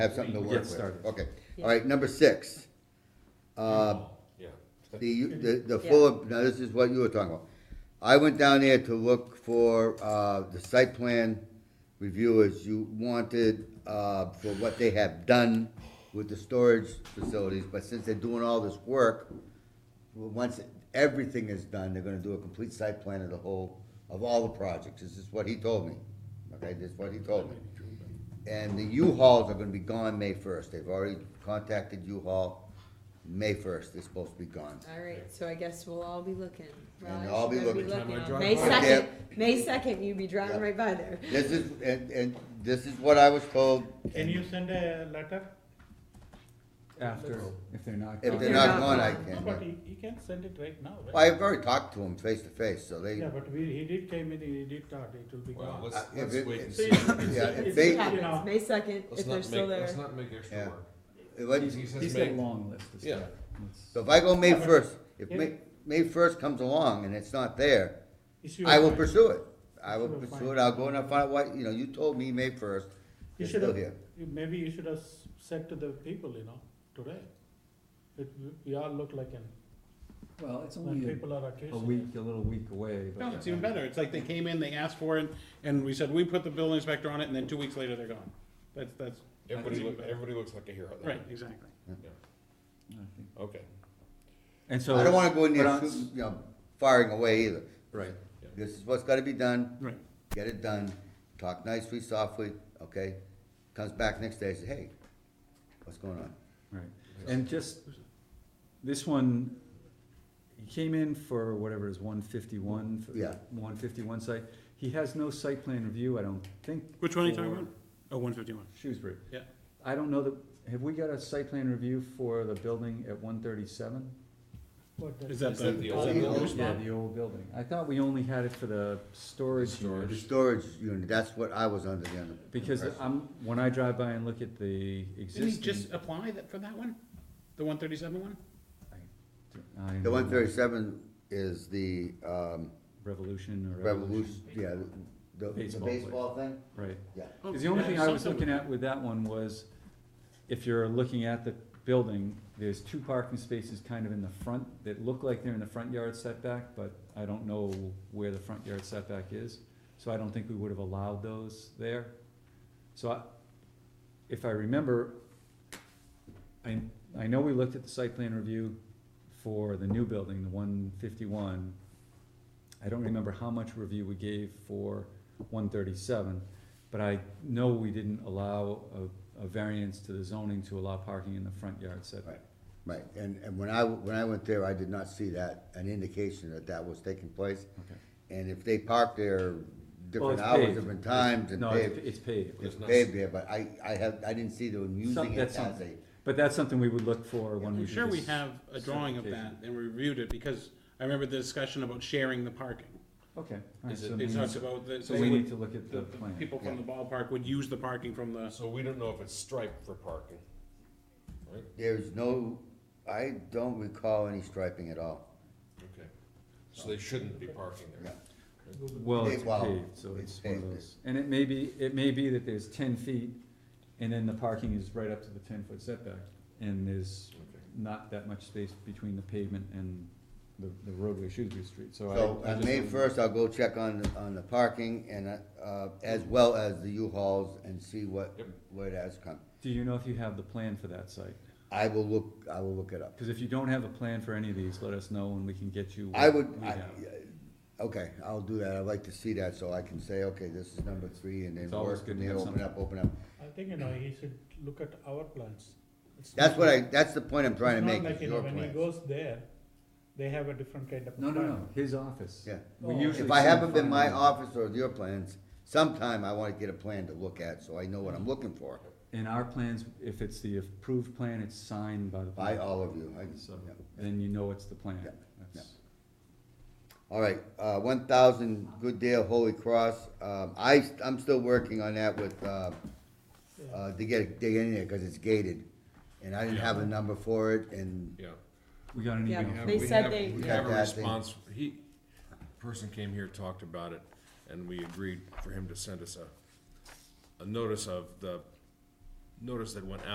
have something to We- we work get with. started. Okay, Yeah. all right, number six. Uh, Yeah. the, the, the full, now this is what you were talking about. I went down there to look for, uh, the site plan reviewers you wanted, uh, for what they have done with the storage facilities, but since they're doing all this work, well, once everything is done, they're gonna do a complete site plan of the whole, of all the projects, this is what he told me, okay, this is what he told me. And the U-Hauls are gonna be gone May first, they've already contacted U-Haul, May first, they're supposed to be gone. All right, so I guess we'll all be looking. And Raj, I'll be you'll looking. Time I on drive May by. second, May second, you'd be driving Yep. right by there. This is, and, and this is what I was told, Can you send a letter? After, if they're not. if gone. they're not gone, I No, can. but but- he, he can send it right now, Well, right? I've already talked to him face to face, so they, Yeah, but we, he did came in, he did talk, it will be Well, gone. let's, Uh, if let's it- wait and So see. you- it's- Yeah, it's- if they- It you know, happens, May second, Let's if not they're make, still there. let's not make extra Yeah. work. it was- He's, he says He's got make, a long list of Yeah. stuff. Let's- so if I go May Yeah, but- first, if Yeah. May, May first comes along and it's not there, it's your I will mind. pursue it. I will Sure, fine. pursue it, I'll go and I'll find out what, you know, you told me May first, You it's should still have, here. you- maybe you should have s- said to the people, you know, today. It, we all look like, an- Well, Oh, it's when only people are a, a accusing week, a little week away, but. No, it's even better. It's like they came in, they asked for it, and we said, we put the building inspector on it, and then two weeks later, they're gone. That's, that's. everybody, that's even look- better. everybody looks like a hero. then. Right, exactly. I think- Okay. And so. I don't wanna go in but there on- shooting, you know, firing away either. Right. This is what's gotta be done, Right. get it done, talk nicely, softly, okay? Comes back next day, says, hey, what's going on? Right, and just, this one, he came in for whatever is one fifty-one, Yeah. one fifty-one site, he has no site plan review, I don't think. Which one are you talking for about? Oh, one fifty-one. Shrewsbury. Yeah. I don't know that, have we got a site plan review for the building at one thirty-seven? what the- Is that Is that the? the old building? Yeah, the old building, I thought we only had it for the storage Storage. The unit, storage unit, that's what I was under the under. because impression. I'm, when I drive by and look at the Didn't he just existing. apply that for that one? The one thirty-seven one? I- The one thirty-seven is the, um, Revolution or. revolution, yeah, the, the Baseball baseball thing? Right. Yeah. Oh, Because Oh, the only thing I was looking at with that one was, if you're looking at the building, there's two parking spaces kind of in the front that look like they're in the front yard setback, but I don't know where the front yard setback is, so I don't think we would have allowed those there. So I, if I remember, I, I know we looked at the site plan review for the new building, the one fifty-one. I don't remember how much review we gave for one thirty-seven, but I know we didn't allow a, a variance to the zoning to allow parking in the front yard setback. Right, and, and when I, when I went there, I did not see that, an indication that that was taking place. Okay. And if they park there Well, different it's hours, paved. different times and No, it's, paved, it's paved, it's It's not- paved there, but I, I have, I didn't see them using Some- it that's as a, something. but that's something we would look for when we. I'm do sure we this. have a drawing of that, certification. and we reviewed it, because I remember the discussion about sharing the parking. Okay, alright, Is so it- They maybe- talked about that, so so we would- need to look at the, the the plan. people from the ballpark would use the parking from the, So we don't know if it's striped for parking, right? there's no, I don't recall any striping at all. Okay. So they shouldn't be parking there. Well, They- it's well, paved, so it's it's one of paved. those, and it may be, it may be that there's ten feet, and then the parking is right up to the ten foot setback, and there's Okay. not that much space between the pavement and the, the roadway Shrewsbury Street, so I. So I on just May wouldn't- first, I'll go check on, on the parking and, uh, uh, as well as the U-Hauls and see what, Yep. where it has come. Do you know if you have the plan for that site? I will look, I will look it up. Cause if you don't have a plan for any of these, let us know and we can get you. I what would, we I, have. okay, I'll do that, I'd like to see that, so I can say, okay, this is number three, and then It's always work, good and to then have open up, open up. I think, you know, he should look at our plans. It's That's not what I, like- that's the point I'm trying to it's not make, like, is you know, your When he plans. goes there, they have a different kind of. No, no, plan. no, his office. Yeah, We Oh. usually. if I send haven't been my final- office or your plans, sometime I wanna get a plan to look at, so I know what I'm looking for, In our plans, if it's the approved plan, it's signed by the. by all of you, I, So, yeah. then you know it's the plan. Yeah, That's- All right, uh, one thousand Good Dale Holy Cross, um, I, I'm still working on that with, uh, Yeah. uh, to get, dig in there, cause it's gated. And I didn't have a number for it, and Yeah. We got an Yeah. email. have- They we said have- they- We We have got a that thing. response, he, person came here, talked about it, and we agreed for him to send us a, a notice of the notice that went out.